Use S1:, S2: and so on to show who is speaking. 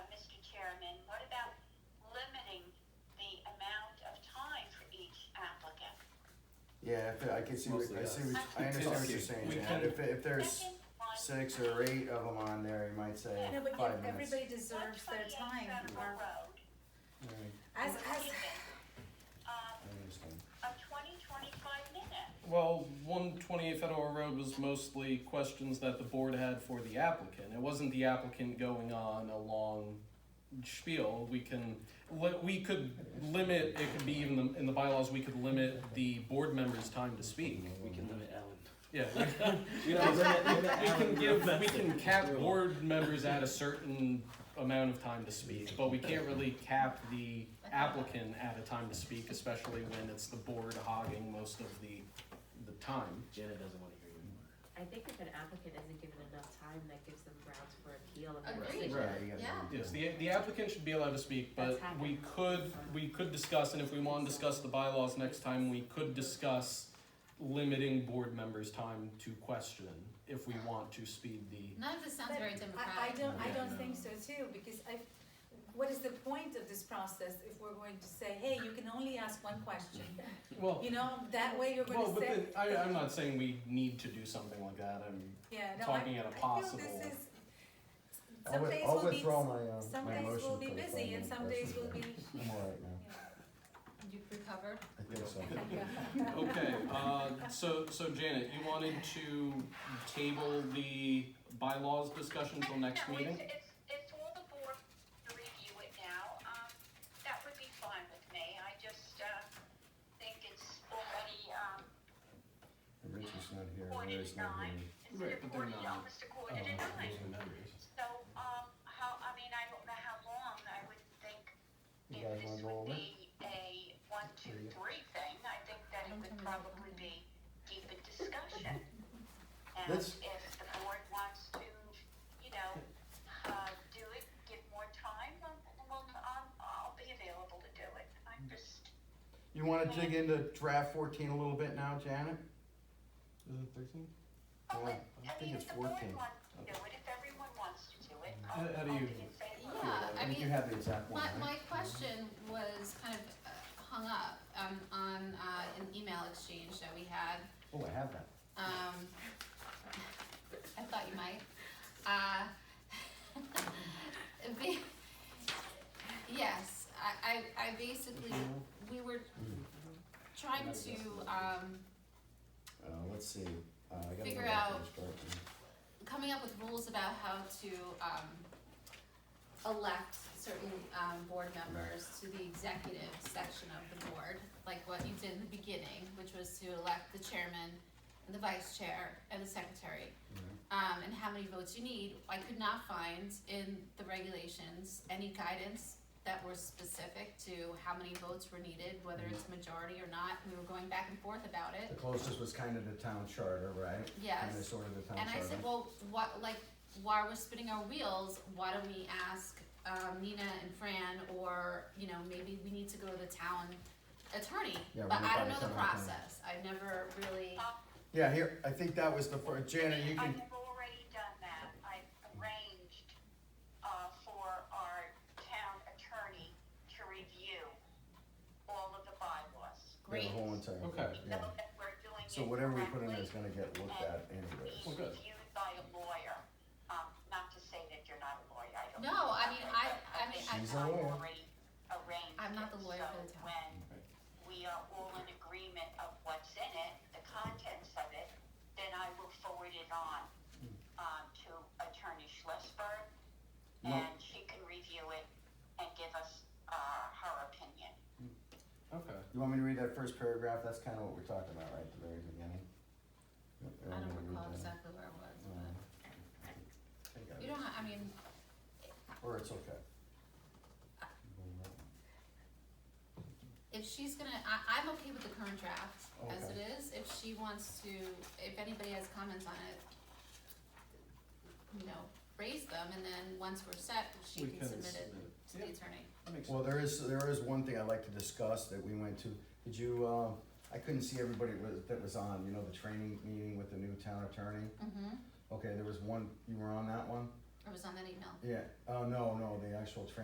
S1: Yeah, if, I can see, what-
S2: Mostly
S1: I
S2: us.
S1: see, what- I understand what you're saying,
S3: We
S1: Jan,
S3: can-
S1: if, if there's
S4: Second one,
S1: six or eight of them on there, you might say
S5: No, but
S1: five
S5: ev-
S1: minutes.
S5: everybody deserves their
S4: 128
S5: time.
S4: Federal Road,
S1: Alright,
S5: As,
S4: we're
S5: as,
S4: leaving, um,
S1: I understand.
S4: a twenty, twenty-five minute.
S3: Well, one twenty-eight Federal Road was mostly questions that the board had for the applicant. It wasn't the applicant going on a long spiel. We can, li- we could limit, it could be even the- in the bylaws, we could limit the board member's time to speak.
S2: We can limit Alan.
S3: Yeah,
S2: You know, limit, limit
S3: we
S2: Alan.
S3: can give, we can cap
S2: Rule.
S3: board members at a certain amount of time to speak, but we can't really cap the applicant at a time to speak, especially when it's the board hogging most of the, the time.
S2: Janet doesn't want to hear you
S6: I think if an applicant isn't given enough time, that gives them grounds for appeal and then
S7: Agreed. Right.
S1: Yeah, you gotta
S7: Yeah.
S1: do
S3: Yes,
S1: that.
S3: the, the applicant should be allowed to speak, but
S6: That's happened.
S3: we could, we could discuss, and if we wanna discuss the bylaws next time, we could discuss limiting board members' time to question, if we want to speed the,
S7: None of this sounds
S5: But
S7: very
S5: I, I
S7: democratic.
S5: don't, I don't think so too, because I, what is the point of this process if we're going to say, hey, you can only ask one question?
S3: well,
S5: You know, that way you're
S3: well,
S5: gonna
S3: but
S5: say,
S3: then, I, I'm not saying we need to do something like that, I'm,
S5: yeah, no, I, I
S3: talking at a
S5: feel
S3: possible-
S5: this is,
S1: I'll
S5: some
S1: wi-
S5: days
S1: I'll
S5: will be,
S1: withdraw my, uh,
S5: some
S1: my
S5: days
S1: motion
S5: will
S1: for
S5: be
S1: the
S5: busy
S1: five
S5: and
S1: minute
S5: some days will
S1: question.
S5: be,
S1: I'm all right now,
S7: You've recovered.
S1: I think so.
S3: Okay, uh, so, so Janet, you wanted to table the bylaws discussion till next
S4: No,
S3: meeting?
S4: It's, it's, it's all the board to review it now, um, that would be fine with me, I just, uh, think it's already, um,
S1: And Richie's not here,
S4: quarter
S1: Mary's
S4: to
S1: not
S4: nine,
S1: here.
S4: instead
S3: Right, but
S4: of
S3: they're
S4: quarter, to-
S3: not,
S4: almost a quarter to
S1: Oh,
S4: nine. So, um, how, I mean, I don't know how long, I would think
S1: You
S4: if
S1: guys
S4: this
S1: wanna
S4: would
S1: go over?
S4: be a one, two,
S1: Yeah.
S4: three thing, I think that it
S7: Don't
S4: would
S7: tell me what
S4: probably
S7: happened.
S4: be deeper discussion. And
S1: Let's-
S4: if the board wants to, you know, uh, do it, give more time, um, well, um, I'll be available to do it, I'm just,
S1: You wanna dig into draft fourteen a little bit now, Janet?
S3: Is it thirteen?
S4: oh,
S1: Yeah,
S4: and- I
S1: I think
S4: mean,
S1: it's
S4: if
S1: Mm-hmm.
S4: the board
S1: 14.
S4: wants to do it, if everyone wants to do it,
S3: How-
S4: I'll,
S3: how do
S4: I'll
S3: you-
S4: be in favor.
S7: Yeah, I
S1: think You
S7: mean,
S1: have the exact one,
S7: My,
S1: right?
S7: my question was kind of uh, hung up, um, on, uh, an email exchange that we had,
S1: Oh, I have that.
S7: um, I thought you might, uh. the- Yes, I, I, I basically, we were trying to,
S1: Mm-hmm.
S7: um,
S1: Uh, let's see, uh, I gotta go
S7: Figure
S1: back to
S7: out-
S1: this chart.
S7: coming up with rules about how to um, elect certain um, board members to the executive section of the board, like what you did in the beginning, which was to elect the chairman and the vice chair and the secretary. Um, and how many votes you need, I could not find in the regulations any guidance that were specific to how many votes were needed, whether it's majority or not, we were going back and forth about
S1: The
S7: it,
S1: closest was kind of the town charter, right?
S7: yes.
S1: Kind of sort of the town
S7: And
S1: charter.
S7: I said, well, what, like, while we're spinning our wheels, why don't we ask, um, Nina and Fran, or, you know, maybe we need to go to the town attorney?
S1: Yeah,
S7: But
S1: run it
S7: I
S1: by
S7: don't
S1: the
S7: know the
S1: town attorney.
S7: process, I've never really,
S1: Yeah, here, I think that was the first, Janet, you
S4: I
S1: can,
S4: have already done that. I've arranged, uh, for our town attorney to review all of the bylaws.
S1: the
S7: great.
S1: whole entire thing,
S3: Okay.
S1: yeah.
S4: So that we're doing it
S1: So whatever we put in there is
S4: correctly
S1: gonna get looked at anyways.
S3: Well,
S4: and
S3: good.
S4: reviewed by a lawyer. Um, not to say that you're not a lawyer, I don't.
S7: No,
S4: mean
S7: I
S4: that,
S7: mean,
S4: but
S7: I- I mean, I-
S1: She's a
S4: I've
S1: lawyer.
S4: already arranged
S7: I'm not
S4: it,
S7: the lawyer
S4: so
S7: for the town.
S4: When
S3: Right.
S4: we are all in agreement of what's in it, the contents of it, then I will forward it on,
S3: Hmm.
S4: um, to Attorney Schlesberg.
S1: No.
S4: And she can review it and give us, uh, her opinion.
S3: Okay.
S1: You want me to read that first paragraph? That's kind of what we're talking about, right, at the very beginning?
S7: I don't recall exactly where it
S1: Oh,
S7: was, but, you don't, ha- I mean,
S1: Or it's okay.
S7: Uh, if she's gonna, I, I'm okay with the current draft as
S1: Okay.
S7: it is, if she wants to, if anybody has comments on it, you know, raise them, and then once we're set, she
S3: We
S7: can submit it to the
S3: Yeah,
S7: attorney.
S3: that makes
S1: Well,
S3: sense.
S1: there is, there is one thing I'd like to discuss that we went to. Did you, uh, I couldn't see everybody wa- that was on, you know, the training meeting with the new town attorney?
S7: Mm-hmm,
S1: Okay, there was one, you were on that one?
S7: it was on that email.
S1: Yeah, oh, no, no, the actual training